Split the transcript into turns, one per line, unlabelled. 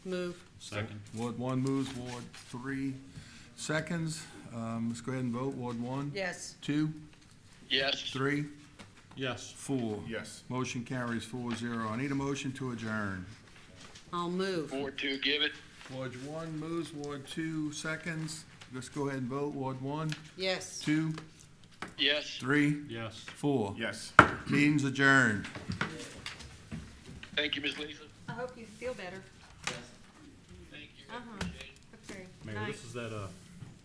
Move.
Second.
Ward one moves, Ward three seconds. Um, let's go ahead and vote. Ward one,
Yes.
two,
yes,
three,
Yes.
four.
Yes.
Motion carries four zero. I need a motion to adjourn.
I'll move.
Ward two, give it,
Ward one moves, Ward two seconds. Let's go ahead and vote. Ward one,
Yes.
two,
yes,
three,
Yes.
four.
Yes.
Meeting's adjourned.
thank you, Ms. Lisa.
I hope you feel better.
Thank you.
Uh-huh. Okay.
Mayor,
Night.
this is that, uh,